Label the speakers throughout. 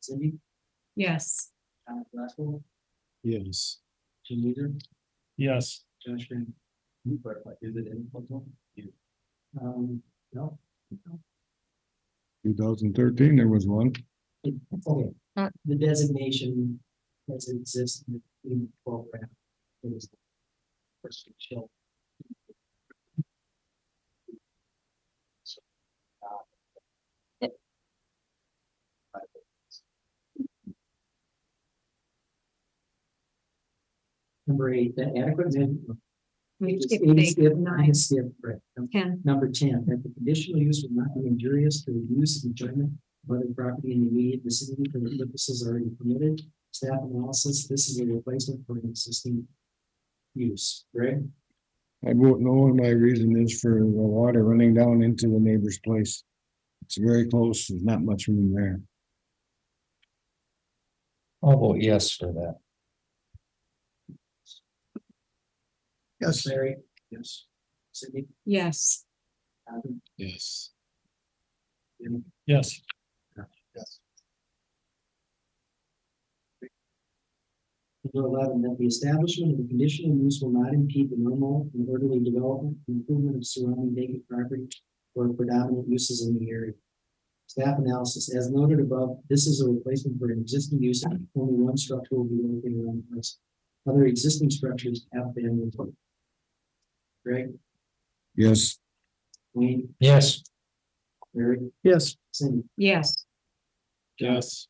Speaker 1: Cindy,
Speaker 2: Yes.
Speaker 1: Thomas Glasgow,
Speaker 3: Yes.
Speaker 1: Jim Leader,
Speaker 3: Yes.
Speaker 1: Josh Green. You were like, is it in Portugal? You. Um, no.
Speaker 3: Two thousand thirteen, there was one.
Speaker 1: Okay, the designation doesn't exist in the in the program. It is First chill. So, uh, Number eight, the adequate. minimum-
Speaker 2: We
Speaker 1: It's
Speaker 2: skip
Speaker 1: eight,
Speaker 2: eight,
Speaker 1: skip,
Speaker 2: nine,
Speaker 1: skip, right. Okay.
Speaker 2: ten.
Speaker 1: Number ten, that the conditional use will not be injurious to the use and enjoyment of other property in the immediate vicinity for the purposes already permitted. Staff analysis, this is a replacement for an existing use, Greg?
Speaker 3: I vote no, and my reason is for the water running down into the neighbor's place. It's very close, there's not much room there. I'll vote yes for that.
Speaker 1: Larry? Yes. Cindy?
Speaker 2: Yes.
Speaker 1: Adam?
Speaker 3: Yes.
Speaker 1: Jim?
Speaker 3: Yes.
Speaker 1: Yes. Number eleven, that the establishment of the conditional use will not impede the normal and orderly development and improvement of surrounding vacant property or predominant uses in the area. Staff analysis, as noted above, this is a replacement for an existing use, only one structure will be located on the place. Other existing structures have been removed. Greg,
Speaker 3: Yes.
Speaker 1: Wayne,
Speaker 3: Yes.
Speaker 1: Larry,
Speaker 3: Yes.
Speaker 1: Cindy,
Speaker 2: Yes.
Speaker 3: Yes.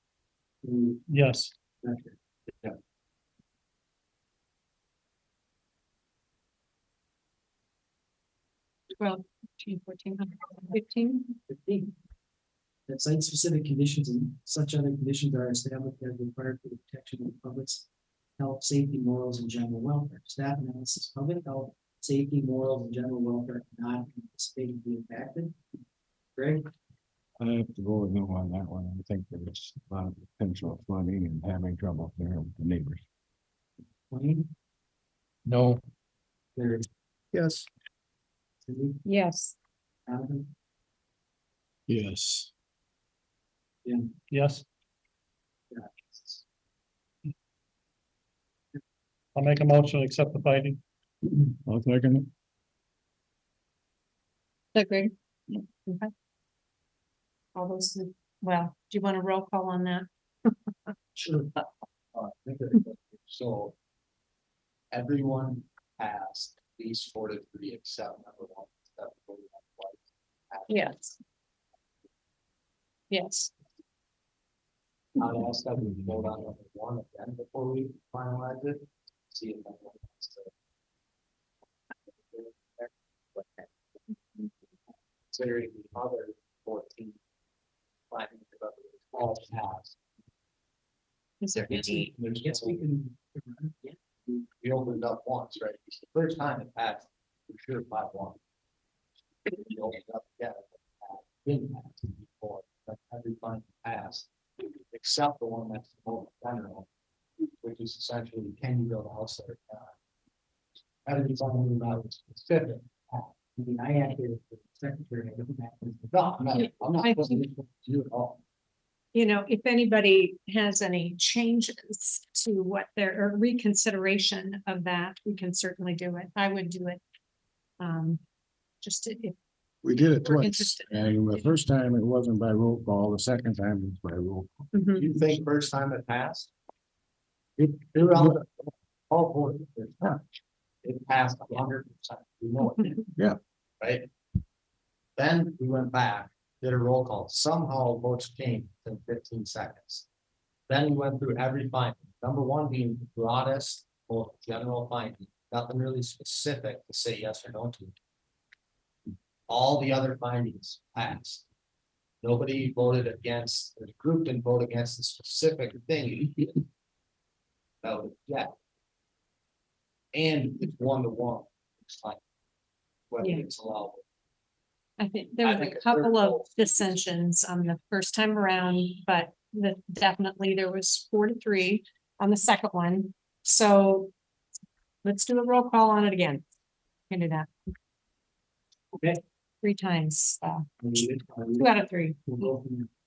Speaker 1: and
Speaker 3: Yes.
Speaker 1: Okay. Yeah.
Speaker 2: Twelve, thirteen, fourteen, fifteen.
Speaker 1: fifteen. That site-specific conditions and such other conditions are established as required for the protection of the public's health, safety, morals, and general welfare. Staff analysis, public health, safety, morals, and general welfare not anticipated to be impacted. Greg,
Speaker 3: I have to go with no on that one. I think there's a lot of potential flooding and having trouble there with the neighbors.
Speaker 1: Wayne,
Speaker 3: No.
Speaker 1: Larry,
Speaker 3: Yes.
Speaker 1: Cindy,
Speaker 2: Yes.
Speaker 1: Donovan,
Speaker 3: Yes.
Speaker 1: Jim.
Speaker 3: Yes.
Speaker 4: I'll make a motion, to accept the finding.
Speaker 3: I'll second it.
Speaker 2: Agreed. Okay. All those, in- well, do you want a roll call on that?
Speaker 1: Sure.
Speaker 5: Uh, So. Everyone passed at least four to three except number one. that voted on twice.
Speaker 2: Yes. Yes.
Speaker 5: I'll ask that we vote on number one again before we finalize it. See if anyone wants to. Considering the other fourteen. Finding about all passed.
Speaker 2: Is there
Speaker 1: Yes, we
Speaker 2: any,
Speaker 1: yes, we can. Yeah.
Speaker 5: We opened up once, right? It's the first time it passed, for sure, by one. We opened up, yeah. Didn't pass before, but every time it passed, except the one that's the most general. Which is essentially, can you build a house there? or not? Every time that was specific.
Speaker 1: I mean, I acted as the secretary, I don't act as the.
Speaker 5: No, I'm not, I'm
Speaker 2: I
Speaker 5: not supposed
Speaker 2: think-
Speaker 5: to do it all.
Speaker 2: you know, if anybody has any changes to what their, or reconsideration of that, we can certainly do it. I would do it. Um, just to- if
Speaker 3: We did it
Speaker 2: We're
Speaker 3: twice,
Speaker 2: interested.
Speaker 3: and the first time it wasn't by roll call, the second time it was by roll. call.
Speaker 2: Mhm.
Speaker 5: You think first time it passed?
Speaker 3: It,
Speaker 5: They're all, all four. of them, huh? It passed a hundred percent, we know it. did.
Speaker 3: Yeah.
Speaker 5: Right? Then we went back, did a roll call, somehow votes changed in fifteen seconds. Then we went through every finding, number one being the broadest, or general finding, nothing really specific to say yes or no to. All the other findings passed. Nobody voted against, the group didn't vote against the specific thing. That was, yeah. And it's one to one, it's like. Whether
Speaker 2: Yeah.
Speaker 5: it's allowable.
Speaker 2: I think there
Speaker 5: I
Speaker 2: was
Speaker 5: think
Speaker 2: a
Speaker 5: a third
Speaker 2: couple of
Speaker 5: vote.
Speaker 2: dissensions on the first time around, but the, definitely there was four to three on the second one. So let's do a roll call on it again. Can do that.
Speaker 1: Okay.
Speaker 2: Three times, uh,
Speaker 1: I mean, it- I mean,
Speaker 2: two out of three.
Speaker 1: we'll go from there.